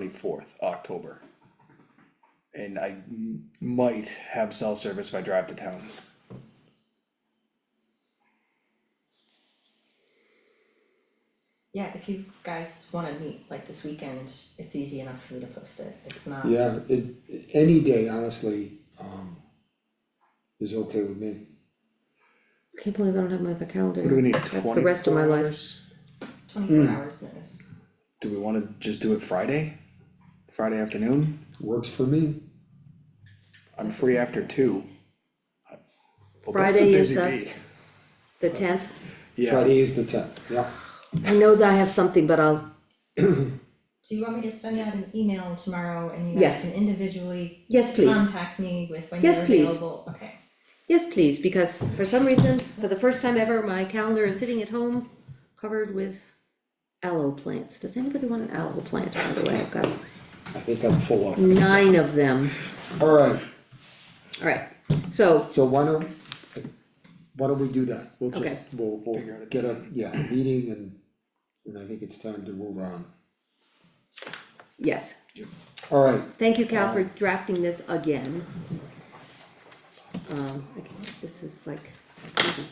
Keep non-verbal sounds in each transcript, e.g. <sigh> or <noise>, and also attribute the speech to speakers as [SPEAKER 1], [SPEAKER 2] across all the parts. [SPEAKER 1] twenty-fourth, October. And I m- might have cell service if I drive to town.
[SPEAKER 2] Yeah, if you guys wanna meet like this weekend, it's easy enough for me to post it, it's not,
[SPEAKER 3] Yeah, it, any day, honestly, um, is okay with me.
[SPEAKER 4] Can't believe I don't have my other calendar.
[SPEAKER 1] What do we need,
[SPEAKER 4] That's the rest of my
[SPEAKER 1] 24
[SPEAKER 4] life.
[SPEAKER 1] hours?
[SPEAKER 4] Hmm.
[SPEAKER 2] twenty-four hours notice.
[SPEAKER 1] Do we wanna just do it Friday? Friday afternoon?
[SPEAKER 3] Works for me.
[SPEAKER 1] I'm free after two. Well, that's a
[SPEAKER 4] Friday is
[SPEAKER 1] busy
[SPEAKER 4] the-
[SPEAKER 1] bee.
[SPEAKER 4] The tenth.
[SPEAKER 1] Yeah,
[SPEAKER 3] Friday is the tenth, yeah.
[SPEAKER 4] I know that I have something, but I'll,
[SPEAKER 2] Do you want me to send out an email tomorrow and you guys
[SPEAKER 4] Yes.
[SPEAKER 2] can individually
[SPEAKER 4] yes, please.
[SPEAKER 2] contact me with when you're
[SPEAKER 4] Yes, please.
[SPEAKER 2] available, okay?
[SPEAKER 4] Yes, please, because for some reason, for the first time ever, my calendar is sitting at home covered with aloe plants. Does anybody want an aloe plant, by the way? I've got
[SPEAKER 3] I think I'm full up.
[SPEAKER 4] nine of them.
[SPEAKER 3] Alright,
[SPEAKER 4] All right, so
[SPEAKER 3] so why don't, why don't we do that? We'll just,
[SPEAKER 4] Okay.
[SPEAKER 3] we'll,
[SPEAKER 1] Figure out
[SPEAKER 3] we'll
[SPEAKER 1] a
[SPEAKER 3] get a, yeah, a meeting and, and I think it's time to move on.
[SPEAKER 4] Yes,
[SPEAKER 3] Alright,
[SPEAKER 4] thank you, Cal, for drafting this again. Um, I can- this is like, confusing.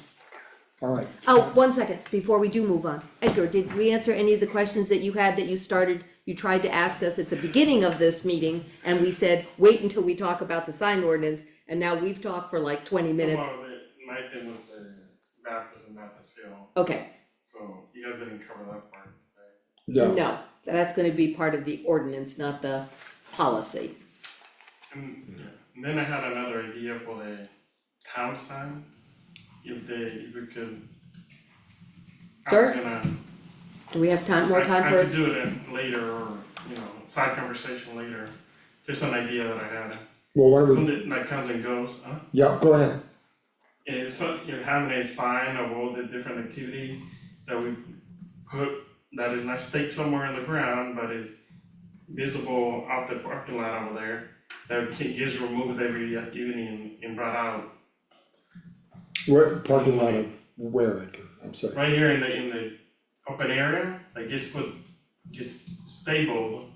[SPEAKER 3] alright,
[SPEAKER 4] oh, one second, before we do move on, Edgar, did we answer any of the questions that you had that you started, you tried to ask us at the beginning of this meeting, and we said, wait until we talk about the sign ordinance, and now we've talked for like twenty minutes,
[SPEAKER 5] Well, the- my thing was the map isn't map to scale,
[SPEAKER 4] okay,
[SPEAKER 5] so you guys didn't cover that part today.
[SPEAKER 3] yeah.
[SPEAKER 4] no, that's gonna be part of the ordinance, not the policy.
[SPEAKER 5] And yeah, and then I had another idea for the town sign, if they, if we could. I was
[SPEAKER 4] Sure.
[SPEAKER 5] gonna-
[SPEAKER 4] Do we have time, more
[SPEAKER 5] I-
[SPEAKER 4] time
[SPEAKER 5] I
[SPEAKER 4] for,
[SPEAKER 5] could do it in later or, you know, side conversation later, just an idea that I had,
[SPEAKER 3] Well, why don't we,
[SPEAKER 5] something that comes and goes, huh?
[SPEAKER 3] yeah, go ahead.
[SPEAKER 5] Yeah, so you know, having a sign of all the different activities that we put, that is not staked somewhere in the ground, but is visible off the parking lot over there, that can, is removed every activity and, and brought out.
[SPEAKER 3] Where, parking lot of where, Edgar? I'm sorry.
[SPEAKER 5] Right here in the, in the open area, that gets put, gets stapled,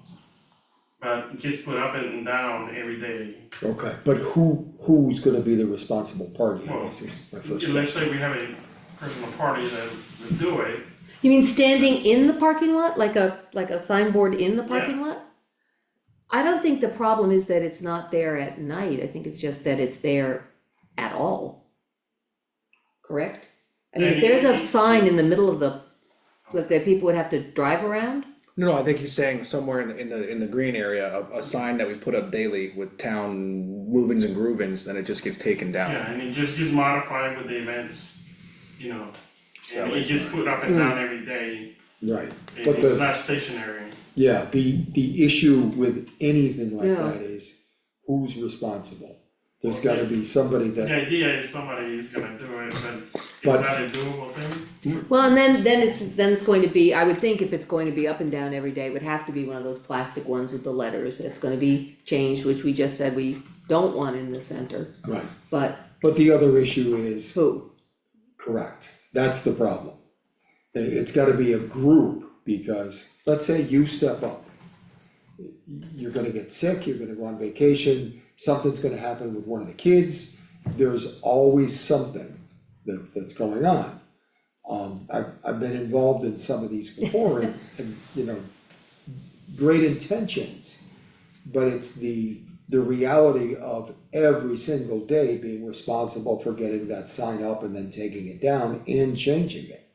[SPEAKER 5] but gets put up and down every day.
[SPEAKER 3] Okay, but who, who's gonna be the responsible party? I
[SPEAKER 5] Well,
[SPEAKER 3] guess is my first question.
[SPEAKER 5] Let's say we have a personal party that would do it,
[SPEAKER 4] you mean standing in the parking lot, like a, like a signboard in the parking lot? I don't think the problem is that it's not there at night, I think it's just that it's there at all. Correct? I mean, if there's a sign in the middle of the, like that people would have to drive around,
[SPEAKER 1] no, no, I think he's saying somewhere in the, in the, in the green area, a, a sign that we put up daily with town movings and groovings, then it just gets taken down.
[SPEAKER 5] Yeah, and it just gets modified with the events, you know,
[SPEAKER 1] So
[SPEAKER 5] and it
[SPEAKER 1] it's
[SPEAKER 5] gets put up and down every day,
[SPEAKER 3] Right,
[SPEAKER 5] It-
[SPEAKER 3] Hmm. but
[SPEAKER 5] it's
[SPEAKER 3] the,
[SPEAKER 5] not stationary.
[SPEAKER 3] yeah, the, the issue with anything like
[SPEAKER 4] Yeah.
[SPEAKER 3] that is who's responsible? There's gotta be somebody
[SPEAKER 5] The
[SPEAKER 3] that,
[SPEAKER 5] idea is somebody is gonna do it, but
[SPEAKER 3] But-
[SPEAKER 5] is that a doable thing?
[SPEAKER 4] Well, and then, then it's, then it's going to be, I would think if it's going to be up and down every day, it would have to be one of those plastic ones with the letters, it's gonna be changed, which we just said we don't want in the center,
[SPEAKER 3] right,
[SPEAKER 4] but
[SPEAKER 3] but the other issue is,
[SPEAKER 4] who?
[SPEAKER 3] correct, that's the problem. It, has gotta be a group, because, let's say you step up. You're gonna get sick, you're gonna go on vacation, something's gonna happen with one of the kids, there's always something that, that's going on. Um, I've, I've been involved in some of these before and, and, you know, great intentions. But it's the, the reality of every single day being responsible for getting that sign up and then taking it down and changing it.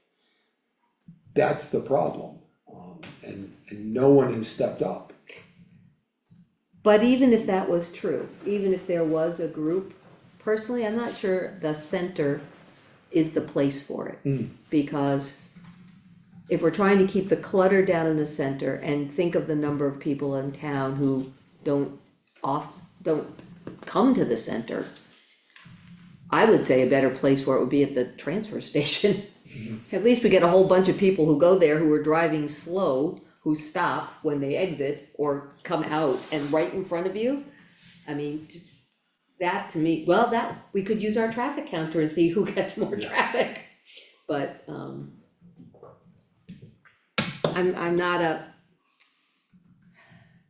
[SPEAKER 3] That's the problem, um, and, and no one has stepped up.
[SPEAKER 4] But even if that was true, even if there was a group, personally, I'm not sure the center is the place for it. Because if we're trying to keep the clutter down in the center and think of the number of people in town who don't off, don't come to the center. I would say a better place for it would be at the transfer <laughs> station. Mm-hmm. At least we get a whole bunch of people who go there who are driving slow, who stop when they exit or come out and right in front of you. I mean, t- that to me, well, that, we could use our traffic counter and see who <laughs> gets more traffic. But, um, I'm, I'm not a,